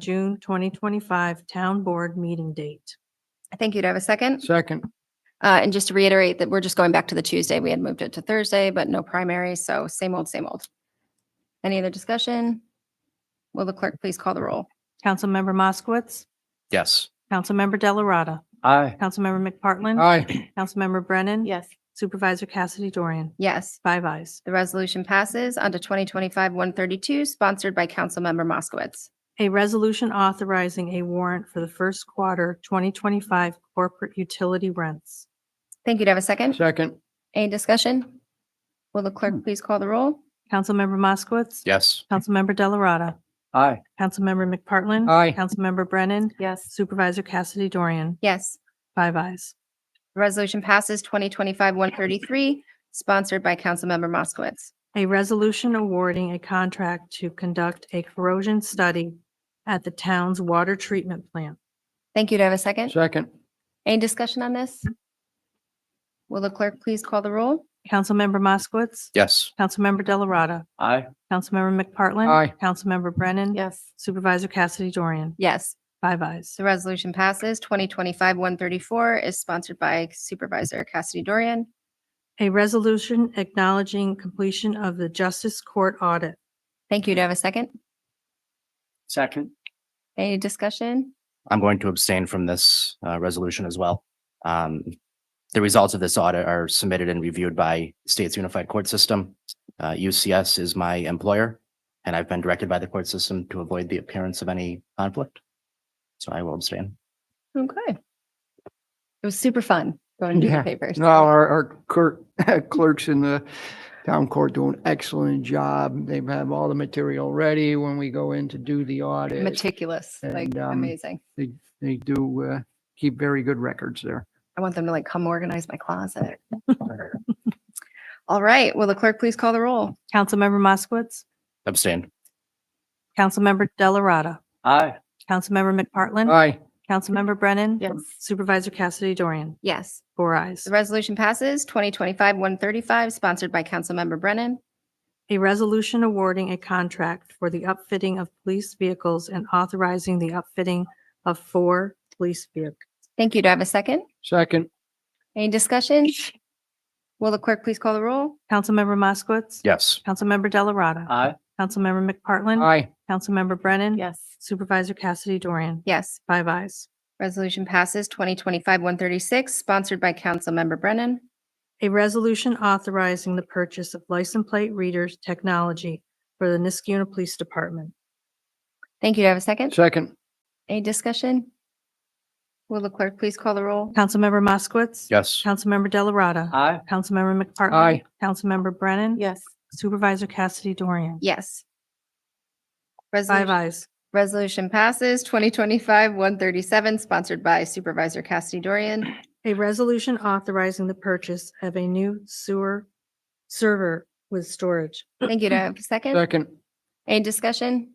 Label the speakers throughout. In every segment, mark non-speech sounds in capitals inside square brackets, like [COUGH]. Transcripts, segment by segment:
Speaker 1: June 2025 Town Board meeting date.
Speaker 2: Thank you. Do I have a second?
Speaker 3: Second,
Speaker 2: Uh, and just to reiterate that we're just going back to the Tuesday. We had moved it to Thursday, but no primary. So same old, same old. Any other discussion? Will the clerk please call the roll?
Speaker 1: Councilmember Moskowitz,
Speaker 4: Yes.
Speaker 1: Councilmember Delarada,
Speaker 3: aye.
Speaker 1: Councilmember McPartlin,
Speaker 3: Aye.
Speaker 1: Councilmember Brennan.
Speaker 5: Yes.
Speaker 1: Supervisor Cassidy Dorian,
Speaker 2: Yes,
Speaker 1: five ayes.
Speaker 2: the resolution passes on to 2025-132, sponsored by Councilmember Moskowitz.
Speaker 1: A resolution authorizing a warrant for the first quarter 2025 corporate utility rents.
Speaker 2: Thank you. Do I have a second?
Speaker 3: Second,
Speaker 2: Any discussion? Will the clerk please call the roll?
Speaker 1: Councilmember Moskowitz.
Speaker 4: Yes.
Speaker 1: Councilmember Delarada,
Speaker 3: aye.
Speaker 1: Councilmember McPartlin.
Speaker 3: Aye.
Speaker 1: Councilmember Brennan,
Speaker 5: Yes.
Speaker 1: Supervisor Cassidy Dorian,
Speaker 2: Yes,
Speaker 1: five ayes.
Speaker 2: the resolution passes 2025-133, sponsored by Councilmember Moskowitz.
Speaker 1: A resolution awarding a contract to conduct a corrosion study at the town's water treatment plant.
Speaker 2: Thank you. Do I have a second?
Speaker 3: Second,
Speaker 2: Any discussion on this? Will the clerk please call the roll?
Speaker 1: Councilmember Moskowitz.
Speaker 4: Yes.
Speaker 1: Councilmember Delarada.
Speaker 3: aye.
Speaker 1: Councilmember McPartlin.
Speaker 3: Aye.
Speaker 1: Councilmember Brennan.
Speaker 5: Yes.
Speaker 1: Supervisor Cassidy Dorian.
Speaker 2: Yes,
Speaker 1: Five ayes.
Speaker 2: the resolution passes. 2025-134 is sponsored by Supervisor Cassidy Dorian.
Speaker 1: A resolution acknowledging completion of the Justice Court audit.
Speaker 2: Thank you. Do I have a second?
Speaker 3: Second.
Speaker 2: Any discussion?
Speaker 4: I'm going to abstain from this uh, resolution as well. Um, The results of this audit are submitted and reviewed by State's Unified Court System. Uh, UCS is my employer, and I've been directed by the court system to avoid the appearance of any conflict. So I will
Speaker 3: [LAUGHS]
Speaker 4: abstain.
Speaker 2: Okay. It was super fun going through
Speaker 3: Yeah.
Speaker 2: the papers.
Speaker 3: No, our, our clerk, [LAUGHS] clerks in the town court do an excellent job. They have all the material ready when we go in to do the audit.
Speaker 2: Meticulous, like
Speaker 3: And, um,
Speaker 2: amazing.
Speaker 3: They, they do, uh, keep very good records there.
Speaker 2: I want them to like come organize my closet. All right. Will the clerk please call the roll?
Speaker 1: Councilmember Moskowitz.
Speaker 4: Abstain.
Speaker 1: Councilmember Delarada.
Speaker 3: Aye.
Speaker 1: Councilmember McPartlin.
Speaker 3: Aye.
Speaker 1: Councilmember Brennan.
Speaker 5: Yes.
Speaker 1: Supervisor Cassidy Dorian.
Speaker 2: Yes,
Speaker 1: Four ayes.
Speaker 2: the resolution passes. 2025-135, sponsored by Councilmember Brennan.
Speaker 1: A resolution awarding a contract for the upfitting of police vehicles and authorizing the upfitting of four police vehicles.
Speaker 2: Thank you. Do I have a second?
Speaker 3: Second,
Speaker 2: Any discussion? Will the clerk please call the roll?
Speaker 1: Councilmember Moskowitz.
Speaker 4: Yes.
Speaker 1: Councilmember Delarada.
Speaker 3: aye.
Speaker 1: Councilmember McPartlin.
Speaker 3: Aye.
Speaker 1: Councilmember Brennan.
Speaker 5: Yes.
Speaker 1: Supervisor Cassidy Dorian.
Speaker 2: Yes,
Speaker 1: Five ayes.
Speaker 2: resolution passes 2025-136, sponsored by Councilmember Brennan.
Speaker 1: A resolution authorizing the purchase of license plate readers technology for the Niskuna Police Department.
Speaker 2: Thank you. Do I have a second?
Speaker 3: Second,
Speaker 2: Any discussion? Will the clerk please call the roll?
Speaker 1: Councilmember Moskowitz.
Speaker 4: Yes.
Speaker 1: Councilmember Delarada.
Speaker 3: aye.
Speaker 1: Councilmember McPartlin.
Speaker 3: Aye.
Speaker 1: Councilmember Brennan.
Speaker 5: Yes.
Speaker 1: Supervisor Cassidy Dorian.
Speaker 2: Yes.
Speaker 1: Five
Speaker 2: Resolution
Speaker 1: ayes.
Speaker 2: resolution passes 2025-137, sponsored by Supervisor Cassidy Dorian.
Speaker 1: A resolution authorizing the purchase of a new sewer server with storage.
Speaker 2: Thank you. Do I have a second?
Speaker 3: Second,
Speaker 2: Any discussion?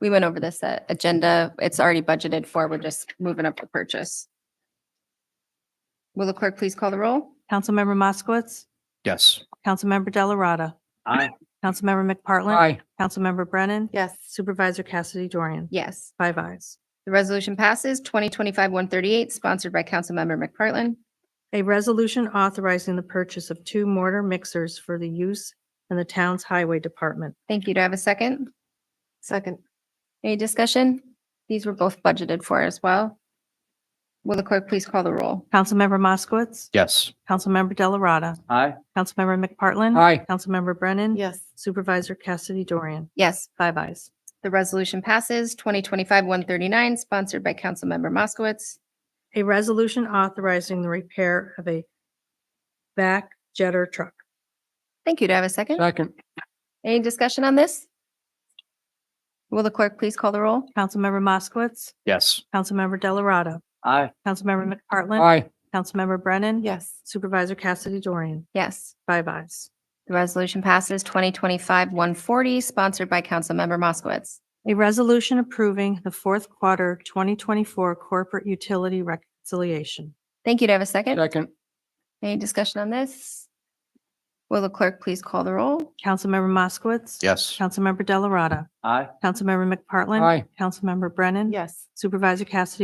Speaker 2: We went over this uh, agenda. It's already budgeted for. We're just moving up the purchase. Will the clerk please call the roll?
Speaker 1: Councilmember Moskowitz.
Speaker 4: Yes.
Speaker 1: Councilmember Delarada.
Speaker 3: Aye.
Speaker 1: Councilmember McPartlin.
Speaker 3: aye.
Speaker 1: Councilmember Brennan.
Speaker 5: Yes.
Speaker 1: Supervisor Cassidy Dorian.
Speaker 2: Yes.
Speaker 1: Five ayes.
Speaker 2: The resolution passes 2025-138, sponsored by Councilmember McPartlin.
Speaker 1: A resolution authorizing the purchase of two mortar mixers for the use in the town's highway department.
Speaker 2: Thank you. Do I have a second?
Speaker 5: Second.
Speaker 2: Any discussion? These were both budgeted for as well. Will the clerk please call the roll?
Speaker 1: Councilmember Moskowitz.
Speaker 4: Yes.
Speaker 1: Councilmember Delarada.
Speaker 3: Aye.
Speaker 1: Councilmember McPartlin.
Speaker 3: Aye.
Speaker 1: Councilmember Brennan.
Speaker 5: Yes.
Speaker 1: Supervisor Cassidy Dorian.
Speaker 2: Yes,
Speaker 1: Five ayes.
Speaker 2: the resolution passes 2025-139, sponsored by Councilmember Moskowitz.
Speaker 1: A resolution authorizing the repair of a back jetter truck.
Speaker 2: Thank you. Do I have a second?
Speaker 3: Second,
Speaker 2: Any discussion on this? Will the clerk please call the roll?
Speaker 1: Councilmember Moskowitz,
Speaker 4: Yes.
Speaker 1: Councilmember Delarada,
Speaker 3: aye.
Speaker 1: Councilmember McPartlin,
Speaker 3: Aye.
Speaker 1: Councilmember Brennan,
Speaker 5: Yes.
Speaker 1: Supervisor Cassidy Dorian,
Speaker 2: Yes,
Speaker 1: five ayes.
Speaker 2: the resolution passes 2025-140, sponsored by Councilmember Moskowitz.
Speaker 1: A resolution approving the fourth quarter 2024 corporate utility reconciliation.
Speaker 2: Thank you. Do I have a second?
Speaker 3: Second,
Speaker 2: Any discussion on this? Will the clerk please call the roll?
Speaker 1: Councilmember Moskowitz.
Speaker 4: Yes.
Speaker 1: Councilmember Delarada.
Speaker 4: Aye.
Speaker 1: Councilmember McPartlin.
Speaker 3: Aye.
Speaker 1: Councilmember Brennan.
Speaker 5: Yes.
Speaker 1: Supervisor Cassidy